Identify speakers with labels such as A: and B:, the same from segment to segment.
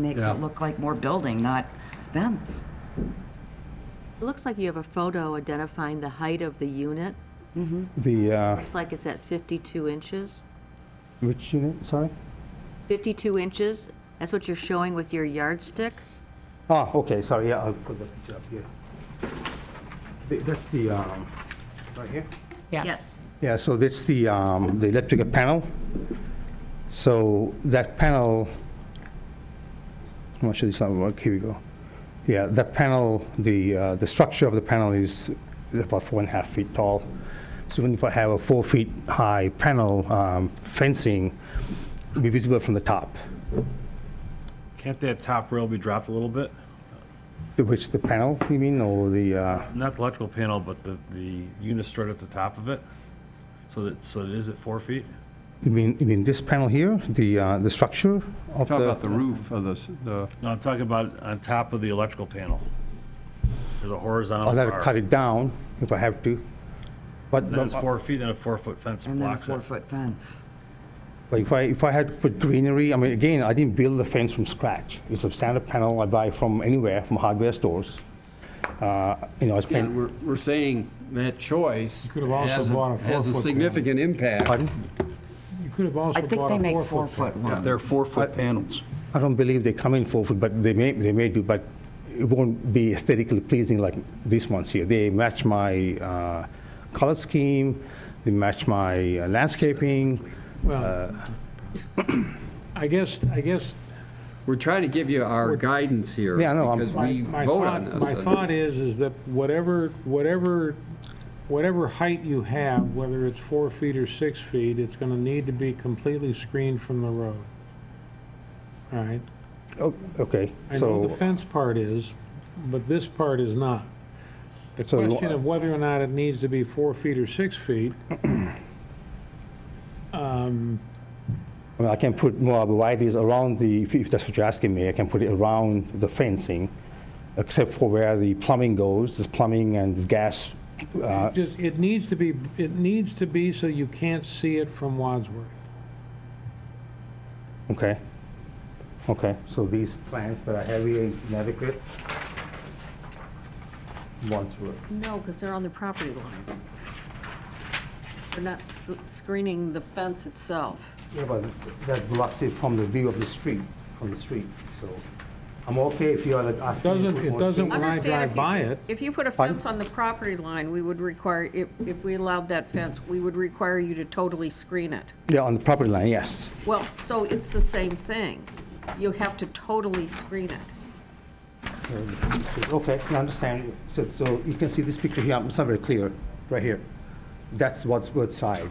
A: Makes
B: Yeah.
A: it look like more building, not fence.
C: It looks like you have a photo identifying the height of the unit.
D: The, uh,
C: Looks like it's at 52 inches.
D: which unit, sorry?
C: 52 inches, that's what you're showing with your yardstick?
D: Ah, okay, sorry, yeah, I'll put the picture up here. The- That's the, um, right here?
C: Yes.
D: Yeah, so that's the, um, the electrical panel. So that panel, I'm not sure this will work, here we go. Yeah, that panel, the, uh, the structure of the panel is about four and a half feet tall. So when you have a four feet high panel um, fencing, it'll be visible from the top,
B: Can't that top rail be dropped a little bit?
D: which the panel, you mean, or the, uh,
B: Not the electrical panel, but the, the unit stored at the top of it? So that, so it is at four feet?
D: you mean, you mean this panel here, the, uh, the structure of
E: Talk about the roof of the, s- the,
B: No, I'm talking about on top of the electrical panel. There's a horizontal
D: I'll
B: bar.
D: have to Oh, cut it down if I have to. But,
B: Then it's
D: but-
B: four feet, then a four-foot fence
A: And then a
B: blocks it.
A: four-foot fence.
D: but if I, if I had to put greenery, I mean, again, I didn't build the fence from scratch. It's a standard panel I buy from anywhere, from hardware stores. Uh, You know, I
E: and
D: spent,
E: we're, we're saying that choice
F: could have also
E: has a-
F: bought a
E: Has a
F: four-foot
E: significant impact.
D: pardon?
F: You could have also
A: I think
F: bought
A: they
F: a
A: make
F: four-foot.
A: four-foot ones.
E: They're four-foot panels.
D: I don't believe they come in four foot, but they may, they may do, but it won't be aesthetically pleasing like these ones here. They match my uh, color scheme, they match my uh, landscaping.
F: Well, I guess, I guess
E: We're trying to give you our guidance here.
D: Yeah, I know, I'm-
E: Because
F: my
E: we
F: my
E: vote on
F: thought,
E: this.
F: my
E: and-
F: thought is, is that whatever, whatever, whatever height you have, whether it's four feet or six feet, it's going to need to be completely screened from the road. All right?
D: Oh, Okay,
F: I know the
D: so,
F: fence part is, but this part is not. The
D: So you-
F: question of whether or not it needs to be four feet or six feet, um,
D: I mean, I can put more varieties around the, if- if that's what you're asking me, I can put it around the fencing, except for where the plumbing goes, there's plumbing and there's gas. uh,
F: It Just, it needs to be, it needs to be so you can't see it from Wadsworth.
D: Okay, okay, so these plants that are heavy is inadequate? Once were.
G: No, because they're on the property line. They're not sc- screening the fence itself.
D: Yeah, but that blocks it from the view of the street, from the street, so I'm okay if you are like asking. me to
F: Doesn't-
D: put
F: it
D: more
F: doesn't
D: trees.
F: When I
G: Understand
F: drive
G: if you-
F: by it-
G: If you put a
D: Pardon?
G: fence on the property line, we would require, if, if we allowed that fence, we would require you to totally screen it.
D: Yeah, on the property line, yes.
G: Well, so it's the same thing. You have to totally screen it.
D: Okay, I understand. So, so you can see this picture here, it's not very clear, right here. That's what's side.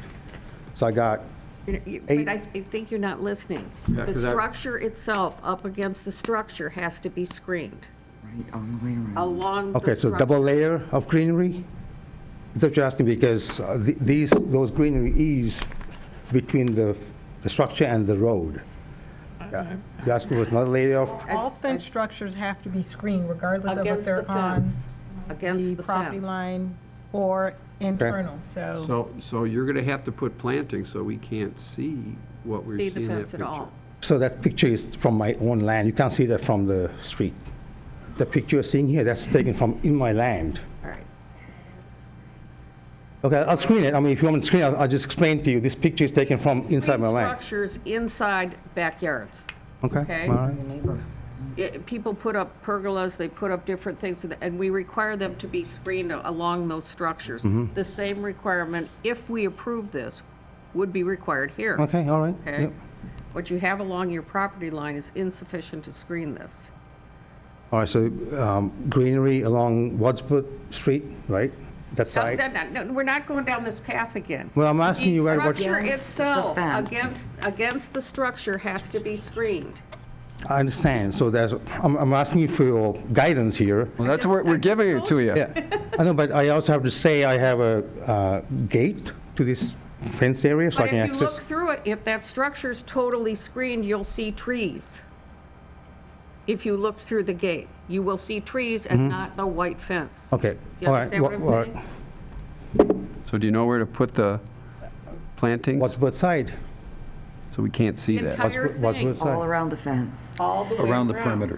D: So I got,
G: You- you-
D: Eight-
G: But I I think you're not listening. The
E: 'cause I-
G: structure itself, up against the structure, has to be screened
A: Right, all the way around.
G: along the
D: okay, so
G: structure.
D: double layer of greenery? Is that what you're asking, because uh, th- these, those greenery is between the, the structure and the road. Yeah. You're asking for another layer of,
G: It's-
H: All fence structures have to be screened regardless of if
G: Against the
H: they're on
G: fence. Against
H: the
G: the
H: property
G: fence.
H: line or internal, so.
E: So, so you're going to have to put planting so we can't see what we're
G: See
E: seeing
G: the
E: in that
G: fence at
E: picture.
G: all.
D: so that picture is from my own land, you can't see that from the street. The picture you're seeing here, that's taken from in my land.
G: All right.
D: Okay, I'll screen it. I mean, if you want me to screen, it, I'll I'll just explain to you. This picture is taken from inside my
G: Screen
D: land.
G: Structures inside backyards.
D: Okay,
G: okay.
D: all right.
G: It- People put up pergolas, they put up different things, and- and we require them to be screened a- along those structures.
D: Mm-hmm.
G: The same requirement, if we approve this, would be required here.
D: Okay, all right.
G: Okay?
D: Yep.
G: What you have along your property line is insufficient to screen this.
D: All right, so um, greenery along Wadsworth Street, right? That
G: No,
D: side?
G: no, no, no, We're not going down this path again.
D: Well, I'm asking you where- what-
G: The structure
A: Against the
G: itself,
A: fence.
G: against, against the structure has to be screened.
D: I understand. So there's, I'm, I'm asking you for your guidance here.
E: Well, that's what, we're giving it to you.
D: Yeah, I know, but I also have to say I have a uh, gate to this fenced area so I
G: But
D: can
G: if you look
D: access.
G: through it, if that structure's totally screened, you'll see trees. If you look through the gate, you will see trees and not the white fence.
D: Mm-hmm. Okay,
G: You
D: all right.
G: understand what I'm
D: Wa- all right.
G: saying?
E: So do you know where to put the plantings?
D: Wadsworth side.
E: So
I: so we can't see that.
D: Entire
J: Wadsworth
D: thing,
J: side.
E: all around the fence.
D: all the way
A: around the perimeter.